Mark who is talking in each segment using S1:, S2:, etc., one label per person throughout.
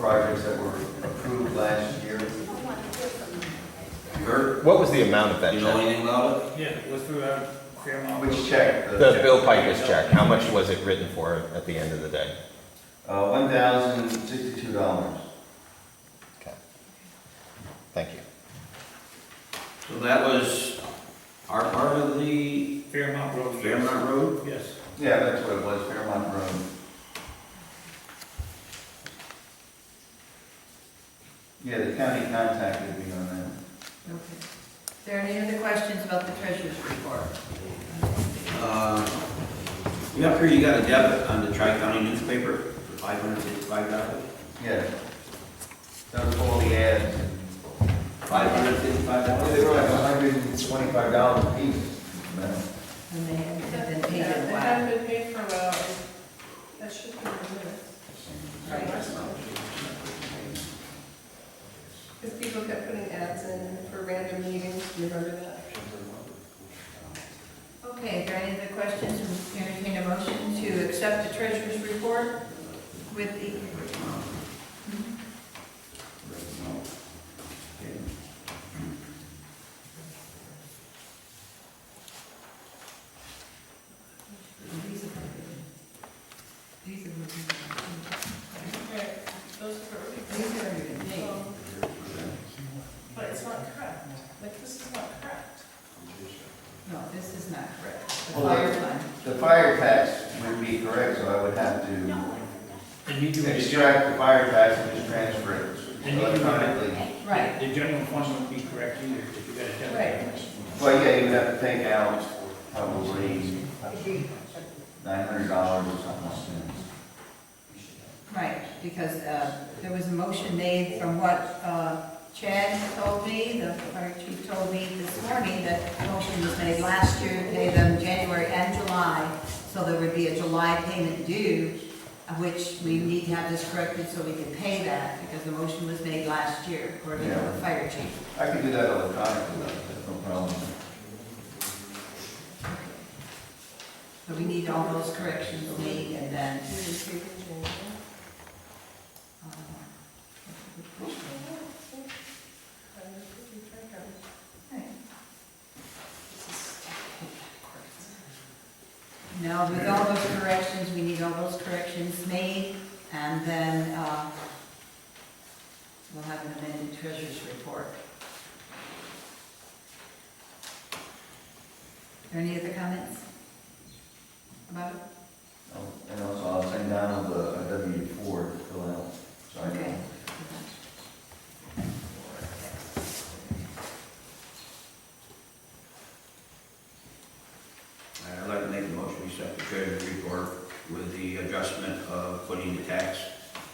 S1: projects that were approved last year. You heard?
S2: What was the amount of that
S1: You know
S2: check?
S1: anything about it?
S3: Yeah, it was through uh, Fairmont.
S1: Which check?
S2: The Bill Pikus check, how much was it written for at the end of the day?
S1: Uh, one thousand sixty-two dollars.
S2: Okay. Thank you.
S4: So that was our part of the
S3: Fairmont Road. yes.
S4: Fairmont Road?
S3: Yes.
S1: Yeah, that's what it was, Fairmont Road. Yeah, the county contacted me on that.
S5: Okay. Is there any other questions about the treasurer's report?
S4: Uh, You up here, you got a debit on the Tri-County newspaper for five hundred fifty-five dollars?
S1: Yeah. That was all the ads.
S4: Five hundred fifty-five
S1: They were like
S4: dollars?
S1: hundred and twenty-five dollars a piece. man.
S5: And they haven't been paid
S6: Yeah,
S5: in a
S6: They
S5: while.
S6: haven't been paid for a while. That should be removed. Because people kept putting ads in for random meetings, do you remember that?
S5: Okay, are there any other questions? Entertain a motion to accept the treasurer's report with the, these are,
S6: Right, those are.
S5: these are even paid.
S6: Um, But it's not correct, like, this is not correct.
S5: No, this is not correct. The
S1: Hold on.
S5: fire fund.
S1: The fire tax would be correct, so I would have to
S3: And you do the general,
S1: extract the fire tax and just transfer it
S3: And you can-
S1: electronically.
S5: Right,
S3: the general fund would be correct either, if you got a debit.
S1: Well, yeah, you would have to take out probably nine hundred dollars or something like that.
S5: right, because uh, there was a motion made from what uh, Chad told me, the fire chief told me this morning, that the motion was made last year, to pay them January and July, so there would be a July payment due, uh, which we need to have this corrected so we can pay that, because the motion was made last year, according to the fire chief.
S1: I could do that electronically, though, that's no problem.
S5: So we need all those corrections made, and then,
S6: We didn't see it in January.
S5: uh,
S6: Um, if you try it.
S5: Now, with all those corrections, we need all those corrections made, and then uh, we'll have an amended treasurer's report. Any other comments about it?
S1: Oh, And also, I'll send down the a W four to fill out, so I
S5: Okay.
S1: know.
S4: I'd like to make a motion, we accept the treasurer's report with the adjustment of putting the tax,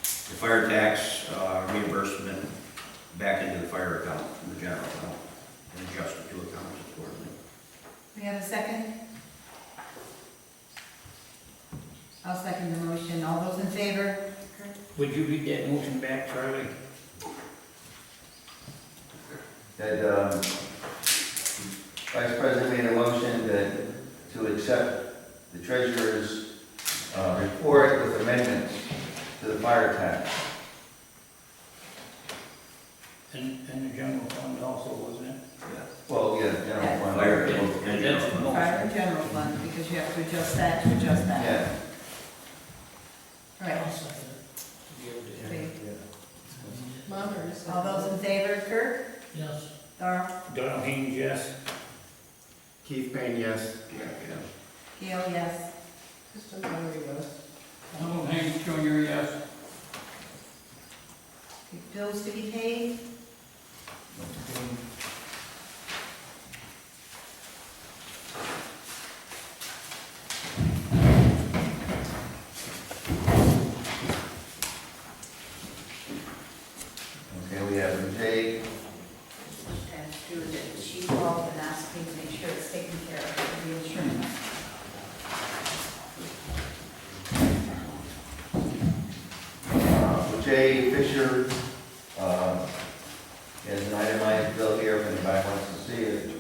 S4: the fire tax uh, reimbursement back into the fire account, from the general account, and adjust the two accounts accordingly.
S5: We have a second? I'll second the motion. All those in favor?
S3: Would you read that motion back, Charlie?
S1: That, um, Vice President made a motion that, to accept the treasurer's, uh, report with amendments to the fire tax.
S3: And, and the general fund also, wasn't it?
S1: Well, yeah, general fund.
S4: Fire and general
S3: That's the
S4: fund.
S3: motion.
S5: Fire and general fund, because you have to adjust that to adjust that.
S1: Yeah,
S5: Right. Okay.
S6: Mom or something.
S5: All those in favor, Kirk?
S3: Yes.
S5: Darrell?
S3: Donald Haynes, yes.
S7: Keith Payne, yes.
S4: Yeah, yeah.
S5: Gail, yes.
S6: Just a memory of.
S3: Donald Haynes Junior, yes.
S5: Okay, Bills to be paid?
S1: okay, we have Jay,
S5: And Stuart, she called and asked me to make sure it's taken care of, for the insurance.
S1: uh, Jay Fisher, uh, has an itemized bill here, if anybody wants to see it. uh,